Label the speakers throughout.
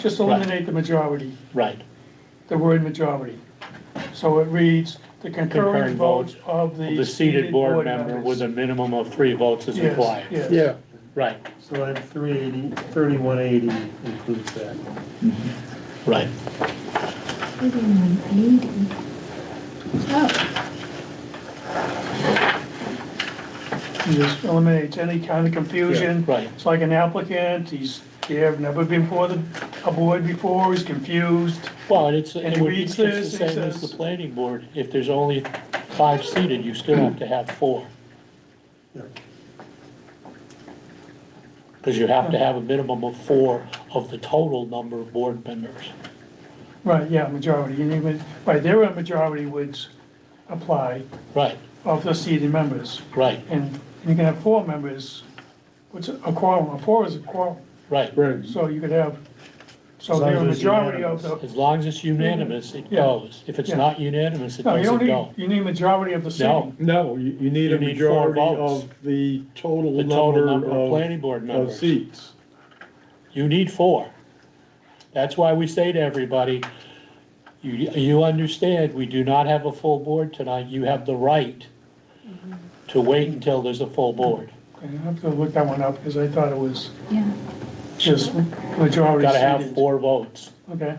Speaker 1: just eliminate the majority,
Speaker 2: Right,
Speaker 1: the word majority. So it reads, the concurrent
Speaker 2: Concurrent votes
Speaker 1: votes of the.
Speaker 2: the seated board member with a minimum of three votes is
Speaker 1: Yes,
Speaker 2: required,
Speaker 1: yes.
Speaker 3: Yeah,
Speaker 2: right,
Speaker 4: So that 380, 3180 includes that.
Speaker 2: right.
Speaker 1: It Just eliminates any kind of confusion.
Speaker 2: Yeah, right.
Speaker 1: It's like an applicant, he's, they have never been before the, a board before, he's confused.
Speaker 2: Well, and it's,
Speaker 1: And
Speaker 2: it
Speaker 1: he
Speaker 2: would be
Speaker 1: reads
Speaker 2: just the
Speaker 1: this, he
Speaker 2: same as the
Speaker 1: says-
Speaker 2: planning board, if there's only five seated, you still have to have four.
Speaker 4: Yeah.
Speaker 2: Cause you have to have a minimum of four of the total number of board members.
Speaker 1: Right, yeah, majority, and even, right, there a majority would apply
Speaker 2: Right,
Speaker 1: of the seated members.
Speaker 2: right,
Speaker 1: And you can have four members, which a quorum, a four is a quorum,
Speaker 2: right.
Speaker 3: right.
Speaker 1: so you could have, so
Speaker 4: As long
Speaker 1: there a
Speaker 4: as it's
Speaker 1: majority of the,
Speaker 2: As long as it's unanimous, it
Speaker 1: Yeah.
Speaker 2: goes. If it's
Speaker 1: Yeah.
Speaker 2: not unanimous, it
Speaker 1: no, you don't
Speaker 2: doesn't
Speaker 1: need,
Speaker 2: go.
Speaker 1: you need majority of the
Speaker 2: No.
Speaker 1: seating.
Speaker 3: Oh, No, you, you need
Speaker 2: You
Speaker 3: a
Speaker 2: need four
Speaker 3: majority
Speaker 2: votes.
Speaker 3: of the total
Speaker 2: The total number of planning
Speaker 3: of,
Speaker 2: board
Speaker 3: of
Speaker 2: members.
Speaker 3: seats.
Speaker 2: You need four. That's why we say to everybody, you, you understand, we do not have a full board tonight. You have the right to wait until there's a full board.
Speaker 1: Okay, I have to look that one up, because I thought it was
Speaker 5: Yeah.
Speaker 1: just majority
Speaker 2: Gotta have
Speaker 1: seated.
Speaker 2: four votes.
Speaker 1: Okay,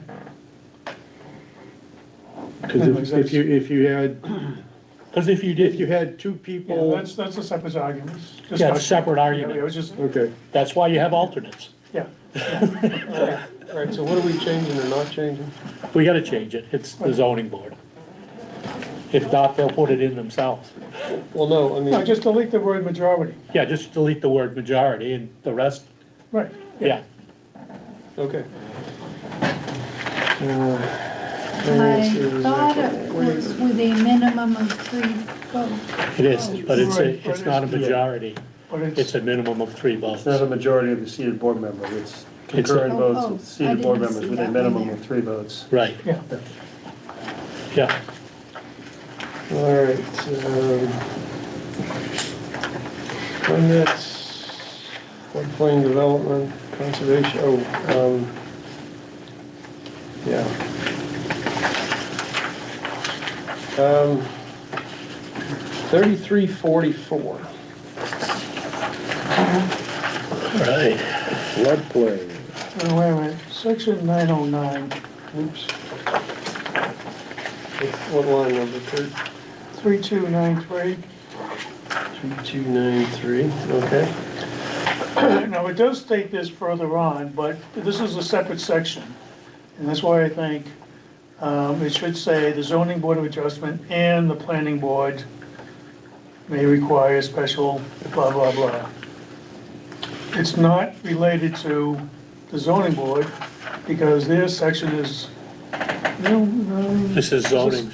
Speaker 3: Cause if, if you, if you had,
Speaker 2: Cause if you
Speaker 3: if you
Speaker 2: did,
Speaker 3: had two
Speaker 1: yeah,
Speaker 3: people,
Speaker 1: that's, that's a separate argument.
Speaker 2: you got a separate
Speaker 1: Yeah, it
Speaker 2: argument.
Speaker 1: was just,
Speaker 3: okay.
Speaker 2: That's why you have alternates.
Speaker 1: yeah,
Speaker 6: All right, so what are we changing or not changing?
Speaker 2: We gotta change it. It's the zoning board. If not, they'll put it in themselves.
Speaker 6: Well, no, I
Speaker 1: no,
Speaker 6: mean,
Speaker 1: just delete the word majority,
Speaker 2: Yeah, just delete the word majority and the rest,
Speaker 1: right.
Speaker 2: yeah.
Speaker 6: okay.
Speaker 5: I thought it was with a minimum of three votes.
Speaker 2: It is, but it's,
Speaker 1: Right,
Speaker 2: a
Speaker 1: but
Speaker 2: it's not a
Speaker 1: it's-
Speaker 2: majority.
Speaker 1: But
Speaker 2: It's a minimum of three votes.
Speaker 4: It's not a majority of the seated board member, it's concurrent
Speaker 5: Oh,
Speaker 4: votes
Speaker 5: oh,
Speaker 4: with
Speaker 5: I
Speaker 4: seated
Speaker 5: didn't
Speaker 4: board
Speaker 5: see
Speaker 4: members with
Speaker 5: that
Speaker 4: a
Speaker 5: one
Speaker 4: minimum
Speaker 5: there.
Speaker 4: of three votes.
Speaker 2: Right,
Speaker 1: yeah,
Speaker 2: yeah.
Speaker 6: All right, um, permits, floodplain development, conservation, oh, um, yeah. Um, thirty-three forty-four.
Speaker 2: All right.
Speaker 3: Floodplain.
Speaker 1: Uh, wait a minute, section nine oh nine,
Speaker 6: Oops. What what line number, thirty?
Speaker 1: three two nine three.
Speaker 6: 3293, okay.
Speaker 1: Now, it does state this further on, but this is a separate section. And that's why I think um, it should say the zoning board of adjustment and the planning board may require special blah, blah, blah. It's not related to the zoning board because their section is, no, no,
Speaker 2: This is zoning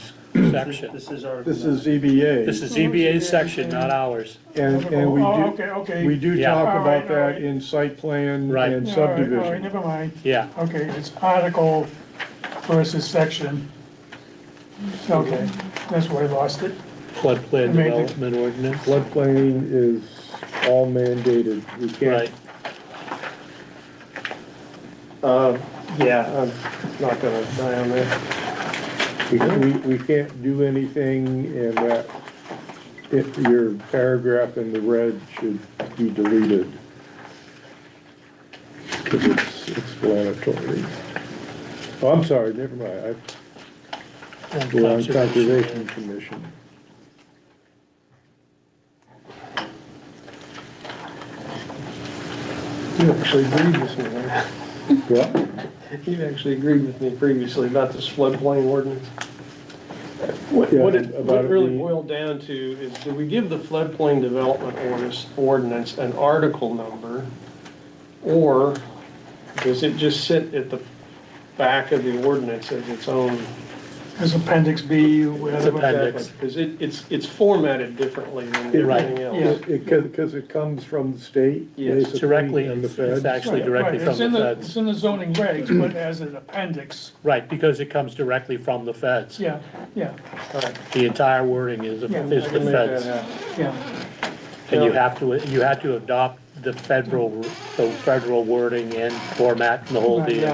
Speaker 2: section.
Speaker 4: This is Article
Speaker 3: This
Speaker 4: 9.
Speaker 3: is ZBA.
Speaker 2: This is ZBA's section, not ours.
Speaker 3: And, and we
Speaker 1: Oh,
Speaker 3: do,
Speaker 1: okay, okay.
Speaker 3: we do
Speaker 2: Yeah.
Speaker 3: talk
Speaker 1: All right,
Speaker 3: about
Speaker 1: all
Speaker 3: that
Speaker 1: right.
Speaker 3: in site plan
Speaker 2: Right.
Speaker 3: and
Speaker 1: Yeah, all right, all right,
Speaker 3: subdivision.
Speaker 1: Never mind.
Speaker 2: Yeah,
Speaker 1: Okay, it's article versus section. Okay, that's where I lost it.
Speaker 2: floodplain
Speaker 1: Amazing.
Speaker 2: development ordinance.
Speaker 3: Floodplain is all mandated, we
Speaker 2: Right,
Speaker 3: can't,
Speaker 6: Uh, Yeah, I'm not gonna die on that.
Speaker 3: we, we, we can't do anything and that, if your paragraph in the red should be deleted. Cause it's explanatory. Oh, I'm sorry, never mind, I, we're on Conservation Commission.
Speaker 6: You actually agreed with me, right?
Speaker 3: What?
Speaker 6: You actually agreed with me previously about this floodplain ordinance. What
Speaker 3: Yeah,
Speaker 6: what it
Speaker 3: about
Speaker 6: what
Speaker 3: it
Speaker 6: it really
Speaker 3: being-
Speaker 6: boiled down to is, do we give the floodplain development ordinance, ordinance an article number? Or does it just sit at the back of the ordinance as its own?
Speaker 1: As appendix B,
Speaker 2: It's
Speaker 1: whatever.
Speaker 2: appendix.
Speaker 6: Because it, it's, it's formatted differently than
Speaker 2: Right.
Speaker 6: everything else.
Speaker 1: Yeah.
Speaker 3: It, because it comes from the state,
Speaker 6: Yes.
Speaker 3: basically,
Speaker 2: Directly,
Speaker 3: and the
Speaker 2: it's it's
Speaker 3: feds.
Speaker 2: actually
Speaker 1: Right,
Speaker 2: directly
Speaker 1: right,
Speaker 2: from
Speaker 1: it's in
Speaker 2: the feds.
Speaker 1: It's in the zoning regs, but as an appendix,
Speaker 2: Right, because it comes directly from the feds.
Speaker 1: yeah, yeah,
Speaker 2: The entire wording is,
Speaker 1: Yeah,
Speaker 2: is
Speaker 6: I
Speaker 2: the
Speaker 6: can make that
Speaker 2: feds.
Speaker 6: happen.
Speaker 1: yeah,
Speaker 2: And you have to, you have to adopt the federal, the federal wording and format and the whole
Speaker 1: Right, yeah.
Speaker 2: deal.